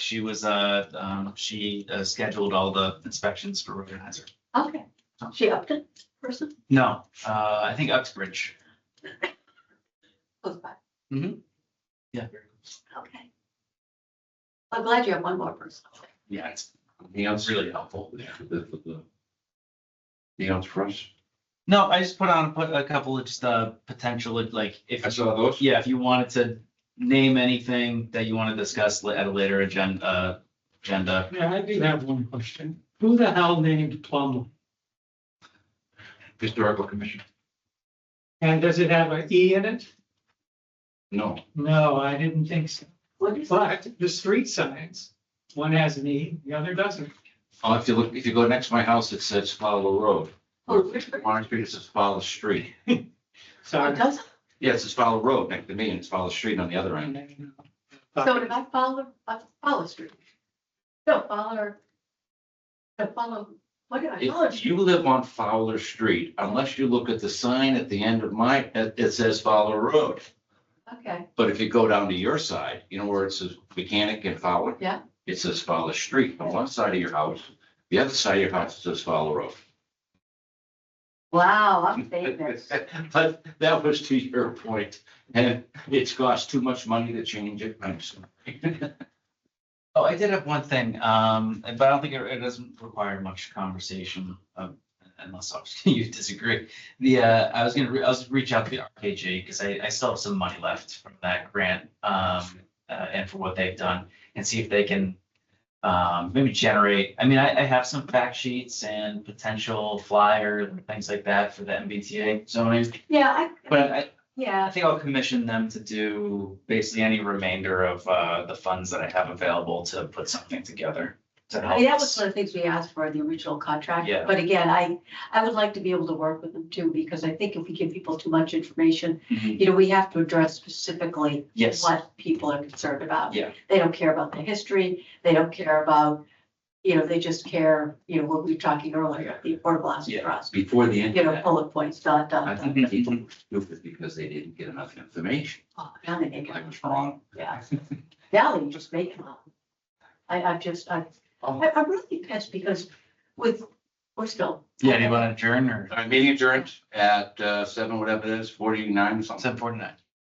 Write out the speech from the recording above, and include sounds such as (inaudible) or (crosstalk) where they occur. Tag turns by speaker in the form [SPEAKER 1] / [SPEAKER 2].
[SPEAKER 1] She was, uh, um, she uh, scheduled all the inspections for organizer.
[SPEAKER 2] Okay, she Upton person?
[SPEAKER 1] No, uh, I think Uxbridge.
[SPEAKER 2] Close by.
[SPEAKER 1] Yeah.
[SPEAKER 2] Okay. I'm glad you have one more person.
[SPEAKER 1] Yeah, it's
[SPEAKER 3] Anything else?
[SPEAKER 1] really helpful.
[SPEAKER 3] Anything else for us?
[SPEAKER 1] No, I just put on, put a couple of just, uh, potential, like, if.
[SPEAKER 3] I saw those.
[SPEAKER 1] Yeah, if you wanted to name anything that you want to discuss la- at a later agenda, uh, agenda.
[SPEAKER 4] Yeah, I do have one question. Who the hell named Plum?
[SPEAKER 3] Historical commission?
[SPEAKER 4] And does it have an E in it?
[SPEAKER 3] No.
[SPEAKER 4] No, I didn't think so.
[SPEAKER 2] What is that?
[SPEAKER 4] But the street signs, one has an E, the other doesn't.
[SPEAKER 3] Oh, if you look, if you go next to my house, it says follow the road.
[SPEAKER 2] Oh, Richard?
[SPEAKER 3] Warren Street, it says follow the street.
[SPEAKER 2] It
[SPEAKER 1] uh,
[SPEAKER 4] Sorry.
[SPEAKER 2] doesn't.
[SPEAKER 3] Yeah, it says follow the road next to me and it's follow the street on the other end.
[SPEAKER 1] uh,
[SPEAKER 2] So did I follow, I follow street? No, follow. I follow, what did I follow?
[SPEAKER 3] If you live on Fowler Street, unless you look at the sign at the end of my, it it says follow the road.
[SPEAKER 2] Okay,
[SPEAKER 3] But if you go down to your side, you know where it says mechanic and Fowler?
[SPEAKER 2] Yeah.
[SPEAKER 3] It says Fowler Street on one side of your house. The other side of your house says Fowler Road.
[SPEAKER 2] wow, I'm
[SPEAKER 1] (laughs)
[SPEAKER 2] famous.
[SPEAKER 3] (laughs) But that was to your point, and it's cost too much money to change it. I'm sorry.
[SPEAKER 1] Oh, I did have one thing, um, but I don't think it, it doesn't require much conversation, um, unless obviously (laughs) you disagree. The, uh, I was gonna, re- I was reach out to the RKJ, because I, I still have some money left from that grant, um, uh, and for what they've done, and see if they can um, maybe generate, I mean, I, I have some fact sheets and potential flyers and things like that for the MBTA zoning,
[SPEAKER 2] Yeah, I,
[SPEAKER 1] but I, I
[SPEAKER 2] yeah,
[SPEAKER 1] think I'll commission them to do basically any remainder of uh the funds that I have available to put something together to
[SPEAKER 2] I
[SPEAKER 1] help.
[SPEAKER 2] mean, that was
[SPEAKER 1] us.
[SPEAKER 2] one of the things we asked for in the original contract.
[SPEAKER 1] Yeah.
[SPEAKER 2] But again, I, I would like to be able to work with them too, because I think if we give people too much information,
[SPEAKER 1] Mhm.
[SPEAKER 2] you know, we have to address specifically
[SPEAKER 1] Yes,
[SPEAKER 2] what people are concerned about.
[SPEAKER 1] Yeah.
[SPEAKER 2] They don't care about the history, they don't care about, you know, they just care, you know, what we were talking earlier, the affordable housing
[SPEAKER 3] Yeah.
[SPEAKER 2] trust.
[SPEAKER 3] Before the
[SPEAKER 2] You know,
[SPEAKER 3] internet,
[SPEAKER 2] bullet points, dot,
[SPEAKER 3] I
[SPEAKER 2] dot, dot.
[SPEAKER 3] think people were stupid because they didn't get enough information.
[SPEAKER 2] Oh, Now they make
[SPEAKER 3] I
[SPEAKER 2] it,
[SPEAKER 3] was
[SPEAKER 2] (laughs)
[SPEAKER 3] wrong.
[SPEAKER 2] yeah. Now they just make them up. I, I've just, I,
[SPEAKER 3] Oh.
[SPEAKER 2] I- I'm really pissed because with, we're still.
[SPEAKER 1] yeah, do you want to adjourn or
[SPEAKER 3] All right, meeting adjourned at uh, seven, whatever it is, forty-nine or something.
[SPEAKER 1] seven forty-nine?